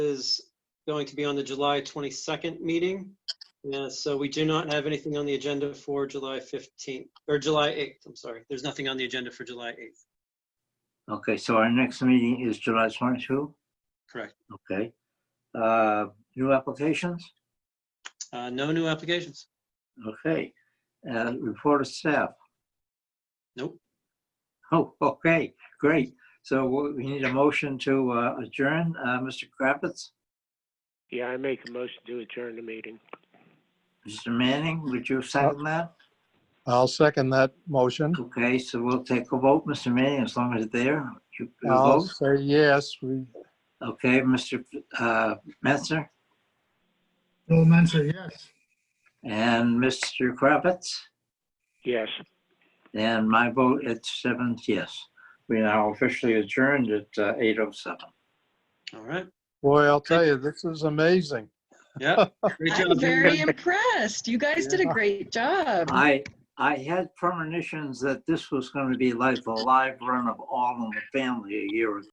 is going to be on the July 22nd meeting. Yeah, so we do not have anything on the agenda for July 15th, or July 8th, I'm sorry. There's nothing on the agenda for July 8th, Okay, so our next meeting is July 22? correct? Okay. Uh, New applications? Uh, No new applications? Okay. Uh, Report of staff? Nope. Oh, okay, great. So we we need a motion to uh, adjourn. Uh, Mr. Kravitz, Yeah, I make a motion to adjourn the meeting. Mr. Manning, would you second that? I'll second that motion. Okay, so we'll take a vote. Mr. Manning, as long as it's there. you you I'll vote. say yes, we, Okay, Mr. uh, Mensah Joe Mensa, yes. and Mr. Kravitz? Yes. And my vote at seven, yes. We are now officially adjourned at uh, 8:07. All right. boy, I'll tell you, this is amazing. Yeah. Great I'm job. very Jim. impressed. You guys did a great job. I, I had premonitions that this was going to be like the live run of All in the Family a year ago.